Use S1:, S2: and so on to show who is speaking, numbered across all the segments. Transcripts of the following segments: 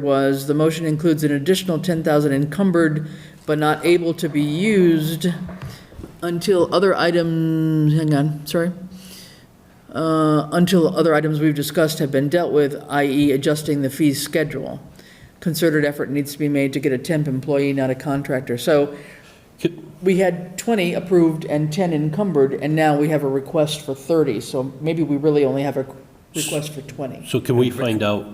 S1: was, the motion includes an additional 10,000 encumbered but not able to be used until other items, hang on, sorry. Uh, Until other items we've discussed have been dealt with, i.e. adjusting the fees schedule. Concerted effort needs to be made to get a temp employee, not a contractor. So we had 20 approved and 10 encumbered, and now we have a request for 30. So maybe we really only have a request for 20.
S2: So can we find out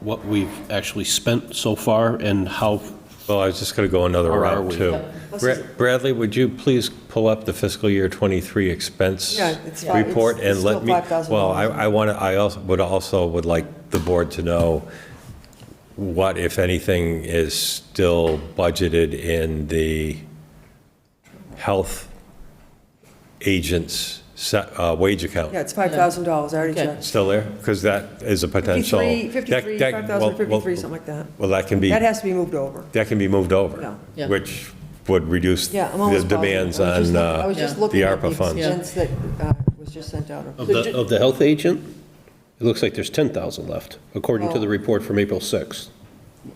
S2: what we've actually spent so far and how,
S3: Well, I was just going to go another
S2: Or are
S3: route,
S2: we?
S3: too. Bra- Bradley, would you please pull up the fiscal year '23 expense
S4: Yeah, it's fi- it's-
S3: report and
S4: it's
S3: let
S4: still
S3: me?
S4: $5,000.
S3: Well, I, I want to, I also, would also would like the board to know what, if anything, is still budgeted in the health agents' sa- uh, wage account.
S4: Yeah, it's five thousand dollars, I already
S1: Okay.
S4: checked.
S3: Still there? Because that is a potential.
S4: Fifty-three,
S3: that-
S4: fifty-three,
S3: that-
S4: five
S3: well,
S4: thousand
S3: well,
S4: fifty-three, something like that.
S3: Well, that can be.
S4: That has to be moved over.
S3: that can be moved over,
S4: No.
S1: Yeah.
S3: which would reduce
S4: Yeah, I'm
S3: the
S4: almost
S3: demands
S4: positive. I was
S3: on
S4: just look- I
S3: uh,
S4: was
S1: Yeah.
S4: just
S3: the
S4: looking at
S3: ARPA funds.
S4: Expense that uh, was just sent out.
S2: of the, of the health agent? It looks like there's 10,000 left, according to the report from April 6th.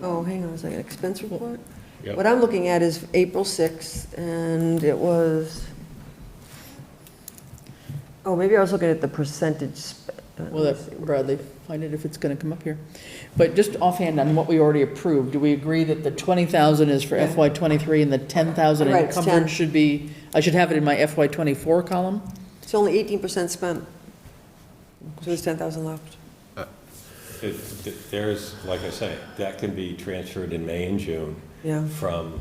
S4: Oh, hang on a second, expense report?
S2: Yeah.
S4: What I'm looking at is April sixth, and it was, oh, maybe I was looking at the percentage. sp- uh,
S1: Well,
S4: let me see.
S1: that- Bradley, find it if it's going to come up here. But just offhand on what we already approved, do we agree that the 20,000 is for FY '23 and the 10,000
S4: Right, it's 10.
S1: encumbered should be, I should have it in my FY '24 column?
S4: It's only eighteen percent spent. So there's ten thousand left.
S3: There's, like I say, that can be transferred in May and June
S4: Yeah.
S3: from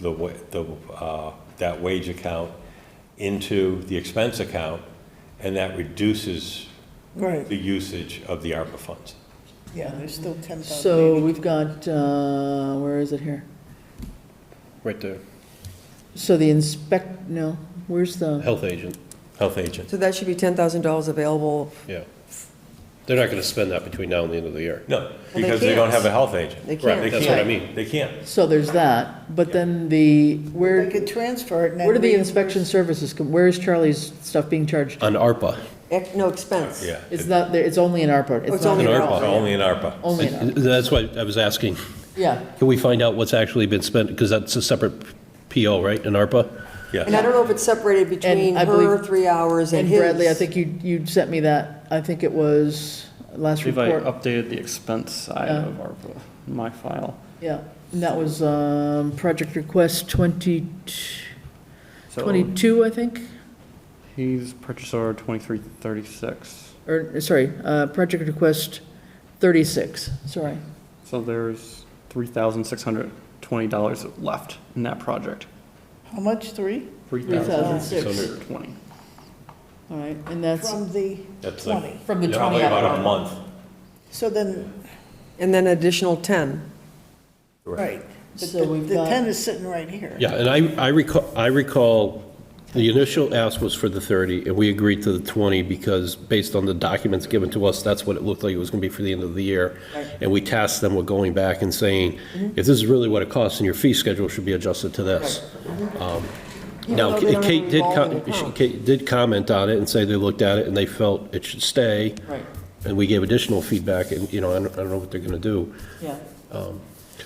S3: the, wa- the, uh, that wage account into the expense account, and that reduces
S5: Right,
S3: the usage of the ARPA funds.
S5: yeah, there's still 10,000.
S1: So we've got, uh, where is it here?
S2: Right there.
S1: So the inspect, no, where's the,
S2: Health agent,
S3: Health agent.
S4: So that should be ten thousand dollars available.
S2: yeah. They're not going to spend that between now and the end of the year.
S3: No,
S4: they
S3: because they don't
S4: can't.
S3: have a health agent.
S4: They
S2: Right,
S4: can't.
S2: That's what I
S1: can't.
S2: mean.
S3: They can't.
S1: so there's that, but then the,
S5: They
S1: where,
S5: could transfer it and then.
S1: where do the
S5: reimburse-
S1: inspection services come, where is Charlie's stuff being charged?
S2: On ARPA.
S4: Ex- No expense.
S3: Yeah.
S1: It's not, there. it's only in ARPA,
S4: Oh,
S1: it's
S4: it's
S1: not,
S3: An
S1: in-
S4: in
S3: ARPA,
S4: ARPA.
S3: only an ARPA.
S1: only in ARPA,
S2: That's why I was asking,
S1: yeah.
S2: can we find out what's actually been spent? Because that's a separate PO, right, in ARPA?
S4: And I
S3: Yes.
S4: don't know if it's separated between
S1: I believe-
S4: her three hours and
S1: And
S4: his.
S1: Bradley, I think you, you sent me that, I think it was last
S6: believe I
S1: report.
S6: updated the expense side
S1: Yeah.
S6: of ARPA, in my file.
S1: Yeah, and that was, um, project request 20
S6: So
S1: 22, I think,
S6: he's purchase order 2336.
S1: or, sorry, uh, project request 36, sorry.
S6: So there's $3,620 left in that project.
S5: How much, three?
S1: 3,006.
S6: 3,620.
S1: All right, and that's
S5: From the
S3: That's like-
S5: 20.
S1: from the 20
S3: Probably about a month.
S5: So then,
S4: And then additional 10.
S5: right. But
S1: So
S5: the-
S1: we've
S5: The
S1: got-
S5: 10 is sitting right here.
S2: Yeah, and I, I recall, I recall, the initial ask was for the 30, and we agreed to the 20 because based on the documents given to us, that's what it looked like it was going to be for the end of the year. And we tasked them with going back and saying, if
S4: Mm-hmm.
S2: this is really what it costs, and your fee schedule should be adjusted to this. Um, Now,
S4: Even though Mm-hmm. they don't
S2: Kate did,
S4: involve
S2: co-
S4: an account.
S2: Kate did comment on it and say they looked at it and they felt it should stay.
S1: Right.
S2: And we gave additional feedback, and, you know, I don't, I don't know what they're going to do.
S1: Yeah,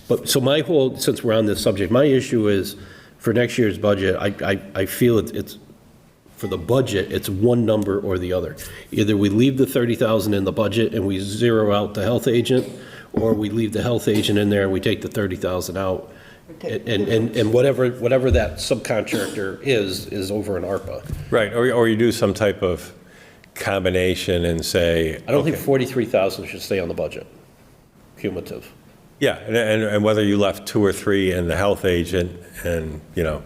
S2: But, so my whole, since we're on this subject, my issue is, for next year's budget, I, I, I feel it's- it's, for the budget, it's one number or the other. Either we leave the 30,000 in the budget and we zero out the health agent, or we leave the health agent in there and we take the 30,000 out. And, and, and whatever, whatever that subcontractor is, is over in ARPA.
S3: Right, or, or you do some type of combination and say.
S2: I don't think
S3: okay.
S2: 43,000 should stay on the budget, cumulative.
S3: Yeah, and, and and whether you left two or three in the health agent and, you know,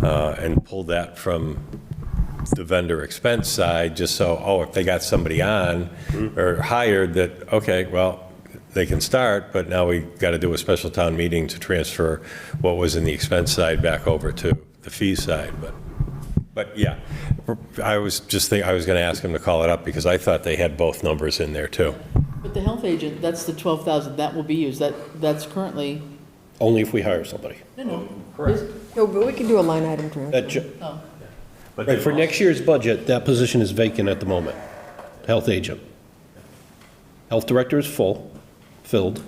S3: uh, and pulled that from the vendor expense side, just so, oh, if they got somebody on or hired that, okay, well, they can start, but now we got to do a special town meeting to transfer what was in the expense side back over to the fee side, but. But yeah, I was just think, I was going to ask him to call it up because I thought they had both numbers in there too.
S1: but the health agent, that's the 12,000, that will be used, that, that's currently,
S2: Only if we hire somebody.
S4: No, but we can do a line item transfer.
S2: That, ju-
S3: But
S2: Right, for next year's budget, that position is vacant at the moment, health agent. Health director is full, filled.